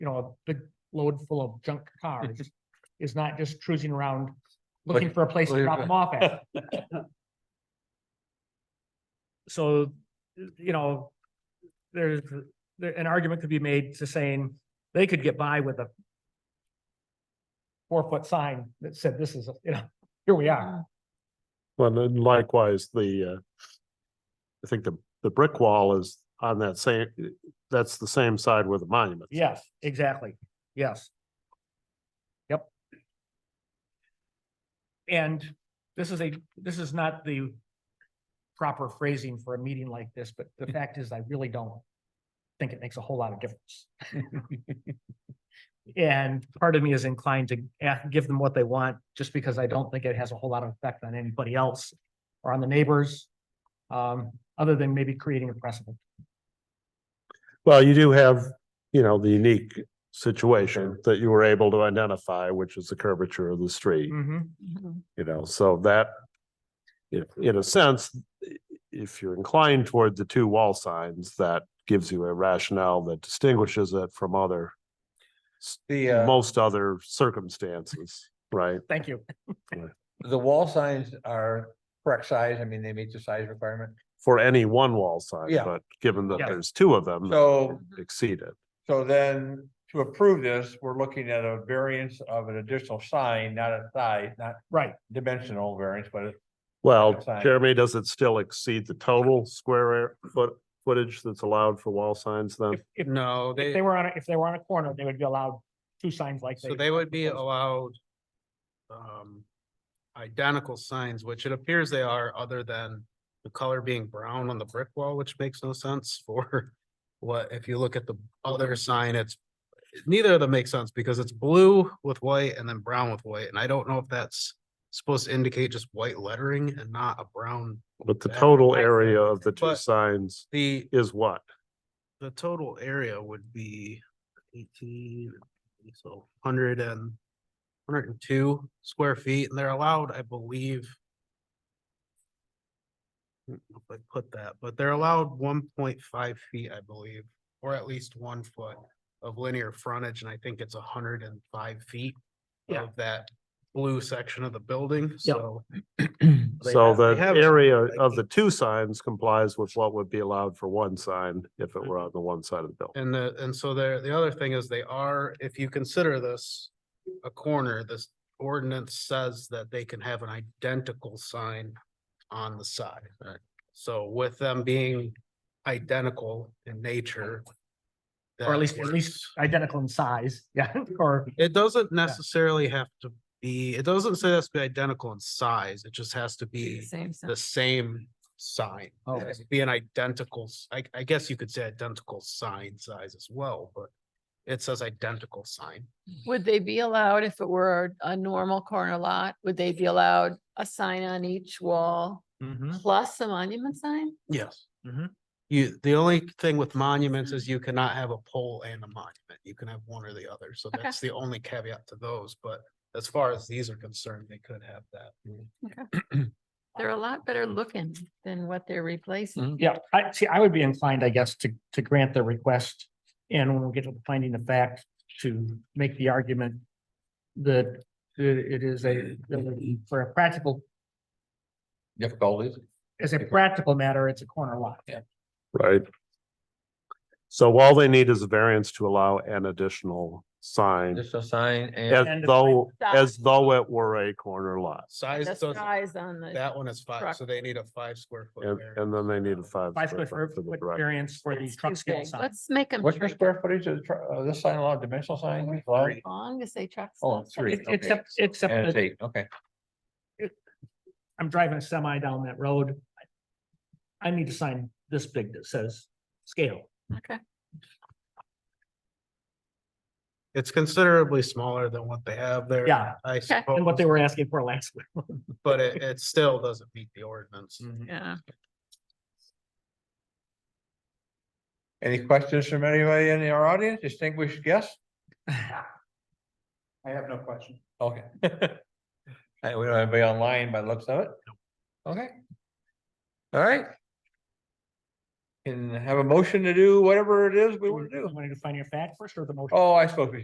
you know, a big load full of junk cars is not just cruising around looking Look- for a place to drop them off at. So, you know, there's, there, an argument could be made to saying they could get by with a four-foot sign that said, this is, you know, here we are. Well, and likewise, the, uh, I think the, the brick wall is on that same, that's the same side where the monument. Yes, exactly. Yes. Yep. And this is a, this is not the proper phrasing for a meeting like this, but the fact is I really don't think it makes a whole lot of difference. And part of me is inclined to a- give them what they want, just because I don't think it has a whole lot of effect on anybody else or on the neighbors, um, other than maybe creating a precedent. Well, you do have, you know, the unique situation that you were able to identify, which is the curvature of the Mm. street, you know, so that in, in a sense, i- if you're inclined toward the two wall signs, that gives you a rationale that distinguishes it from other, The, uh, most other circumstances, right? Thank you. uh, the wall signs are correct size. I mean, they meet the size requirement. for any one wall sign, Yeah. but given that Yeah. there's two of them. So, Exceed it. so then to approve this, we're looking at a variance of an additional sign, not a size, not Right. dimensional variance, but it's Well, Good sign. Jeremy, does it still exceed the total square air- foot footage that's allowed for wall signs then? If- if- No, If they, they were on, a- if they were on a corner, they would be allowed two signs like. so they would be proposed. allowed um, identical signs, which it appears they are, other than the color being brown on the brick wall, which makes no sense for what, if you look at the other sign, it's neither of them make sense because it's blue with white and then brown with white, and I don't know if that's supposed to indicate just white lettering and not a brown. But the back- total area of the two But- signs The, is what? the total area would be eighteen, so hundred and hundred and two square feet, and they're allowed, I believe. I don't know If I put that, but they're allowed one point five feet, I believe, or at least one foot of linear frontage, and I think it's hundred and five feet. Yeah. Of that blue section of the building, so. they So have- they the have- area like of the two signs complies with what would be allowed for one sign if it were on the one side of the building. And the, and so there, the other thing is they are, if you consider this a corner, this ordinance says that they can have an identical sign on the side. Right. So with them being identical in nature. Or at that least, at least works. identical in size, yeah, or, It doesn't necessarily have to be, it doesn't say it has to be identical in size. It just has to be Same, the same. same sign. Oh. It has to Be an identical, s- I, I guess you could say identical sign size as well, but it says identical sign. Would they be allowed, if it were a normal corner lot, would they be allowed a sign on each wall Hmm? plus a monument sign? Yes. Mm-hmm. Mhm. You, the only thing with monuments is you cannot have a pole and a monument. You can have one or the other. So Okay. that's the only caveat to those, but as far as these are concerned, they could have that. Mm-hmm. They're a lot better looking than what they're Mm, replacing. Mm-hmm. yeah, I, see, I would be inclined, I guess, to, to grant the request. And when we get to the finding of fact, to make the argument that uh, it is a, for a practical, difficulties. as a practical matter, it's a corner lot. Right. So all they need is a variance to allow an additional sign Additional sign and And as the though, size. as though it were a corner lot. Size The doesn't, size on the, that one is five, truck. so they need a five square foot. uh, And, variance. and then they need a five. Five square foot ver- for the foot direct- variance for the it's truck too scale big. sign. Let's make them what's your square footage of the tr- uh, this sign allowed, dimensional sign? Allowed? as long as they truck. Oh, stop three, signs. It- okay. Except, except And that it's eight, okay. I'm driving a semi down that road. I need a sign this big that says scale. Okay, It's considerably smaller than what they have there. Yeah, I and what suppose, they were asking for last week. but it, it still doesn't meet the ordinance. Mm-hmm. yeah. Any questions from anybody in our audience, distinguished guests? I have no question. Okay. Hey, we don't have anybody online by the looks of it? Okay. All right. can have a motion to do whatever it is we want to do. Want to define your fact first or the motion? Oh, I suppose we